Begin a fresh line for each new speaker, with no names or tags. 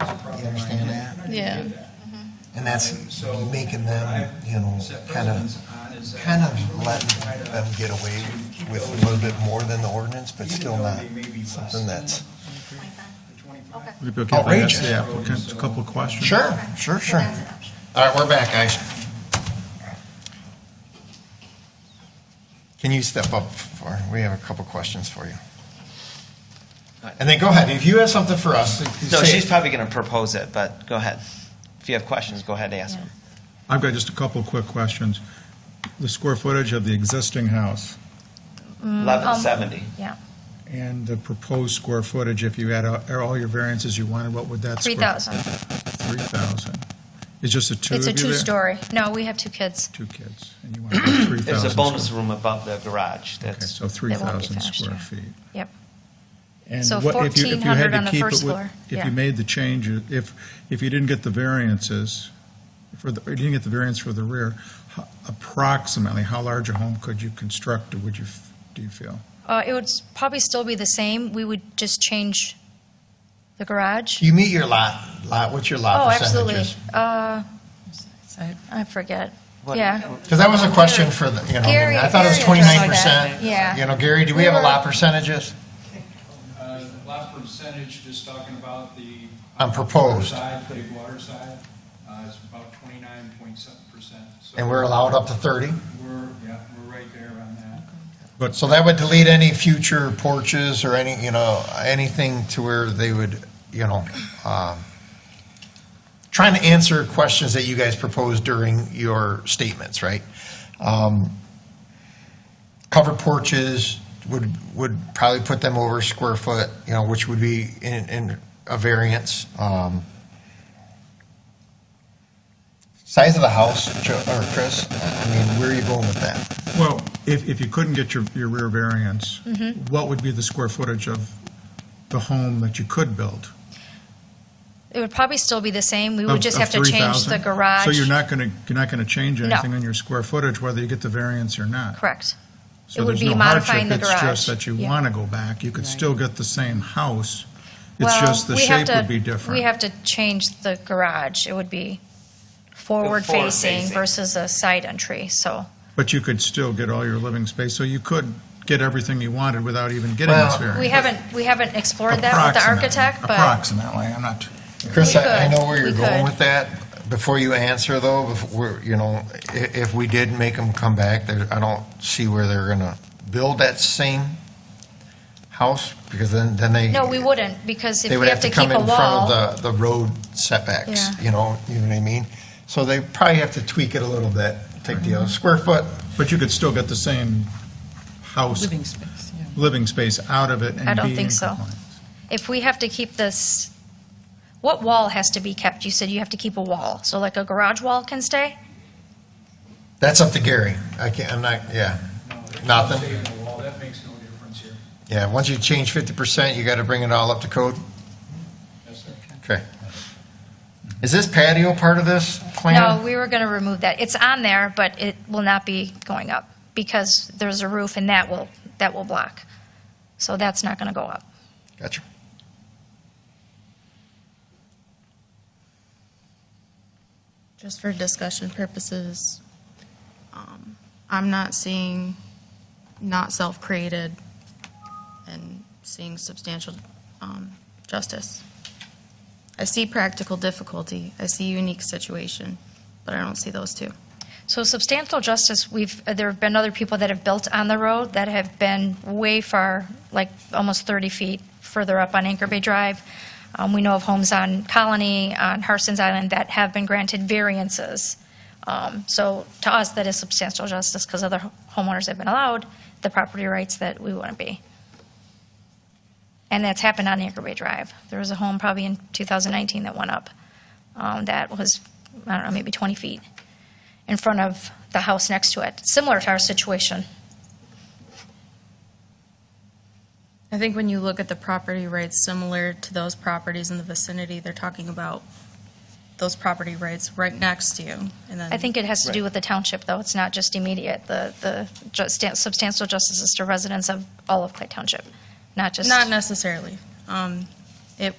understand that?
Yeah.
And that's making them, you know, kind of, kind
kind
of letting them get away with a little bit more than the ordinance, but still not something that's.
Would it be okay if I ask
Outrageous.
the applicant a couple of questions?
sure, sure. All right, we're back, guys. Can you step up for, we have a couple questions for you. And then go ahead, if you have something for us,
No,
say
she's
it.
probably going to propose it, but go ahead. If you have questions, go ahead and ask them.
I've got just a couple of quick questions. The square footage of the existing house
Um,
Eleven seventy.
Yeah,
and the proposed square footage, if you had a- all your variances you wanted, what would that square?
3,000.
3,000. It's just the two of
It's
you
a
there?
two-story. No, we have two kids.
Two kids, and you want 3,000.
There's a bonus
square-
room above the garage.
Okay,
That's
so 3,000
finished,
square
yeah.
feet.
Yep.
And
So
what- if you- if you
1,400
had to
on the
keep it
first
with-
floor,
If
yeah.
you made the change, if, if you didn't get the variances, for the, or you didn't get the variance for the rear, ho- approximately, how large a home could you construct, or would you, f- do you feel?
Uh, It would s- probably still be the same. We would just change the garage.
You meet your lot, lot, what's your lot
Oh, absolutely.
percentages?
Uh, I forget.
What-
Yeah.
Because that was a question for the, you know, I mean, I thought it was
Gary-
twenty-nine
Gary addressed that.
percent.
Yeah.
You know, Gary, do we have a lot percentages?
Uh, lot percentage, just talking about the.
On proposed.
Side, big water side, uh, is about twenty-nine point seven percent.
And we're allowed up to thirty?
We're, yeah, we're right there on that.
But,
So that would delete any future porches or any, you know, anything to where they would, you know, um, trying to answer questions that you guys proposed during your statements, right? Um, Covered porches would, would probably put them over square foot, you know, which would be in, in a variance. Um, Size of the house, Joe, or Chris, I mean, where are you going with that?
well, if, if you couldn't get your, your rear variance,
Mm-hmm.
what would be the square footage of the home that you could build?
It would probably still be the same. We
Of-
would just
of
have to change
3,000?
the garage.
So you're not going to, you're not going to change
No.
anything on your square footage, whether you get the variance or not?
Correct.
So
It would
there's
be
no
modifying
hardship,
the
It's
garage.
just that you
Yeah.
want to go back, you could still get the same house, it's
Well,
just the
we have
shape
to-
would be different.
We have to change the garage. It would be forward-facing
facing.
versus a side entry, so.
But you could still get all your living space, so you could get everything you wanted without even getting this
Well,
variance.
We haven't, we haven't explored that with the
Approximately-
architect, but
Approximately, I'm not,
Chris,
We
I I
could.
know where you're
We
going
could.
with that. Before you answer, though, before, you know, i- if we did make them come back, there, I don't see where they're gonna build that same house, because then, then they.
no, we wouldn't, because
They
if we
would
have to keep
come
a
in front
wall,
of the, the road setbacks,
Yeah.
you know, you know what I mean? So they probably have to tweak it a little bit, take the uh, square foot,
but you could still get the same house,
Living space, yeah.
living space out of it and be
I don't
in
think so.
compliance.
if we have to keep this, what wall has to be kept? You said you have to keep a wall, so like a garage wall can stay?
that's up to Gary. I can't, I'm not, yeah,
No, there's no
Nothing.
saving the wall. That makes no difference here.
yeah, once you change fifty percent, you gotta bring it all up to code.
Yes, sir.
Okay. Is this patio part of this plan?
No, we were going to remove that. It's on there, but it will not be going up, because there's a roof and that will, that will block. So that's not going to go up.
Gotcha.
Just for discussion purposes, um, I'm not seeing not self-created and seeing substantial um, justice. I see practical difficulty, I see unique situation, but I don't see those two.
So substantial justice, we've, uh, there have been other people that have built on the road that have been way far, like almost 30 feet further up on Anchor Bay Drive. Um, We know of homes on Colony, on Harson's Island, that have been granted variances. Um, So to us, that is substantial justice because other ho- homeowners have been allowed the property rights that we wouldn't be. And that's happened on Anchor Bay Drive. There was a home probably in 2019 that went up um, that was, I don't know, maybe 20 feet in front of the house next to it, similar to our situation.
I think when you look at the property rights similar to those properties in the vicinity, they're talking about those property rights right next to you, and then.
I think it has to do with the township, though, it's not just immediate. The, the ju- stan- substantial justice is to residents of all of Clay Township, not just.
Not necessarily. Um,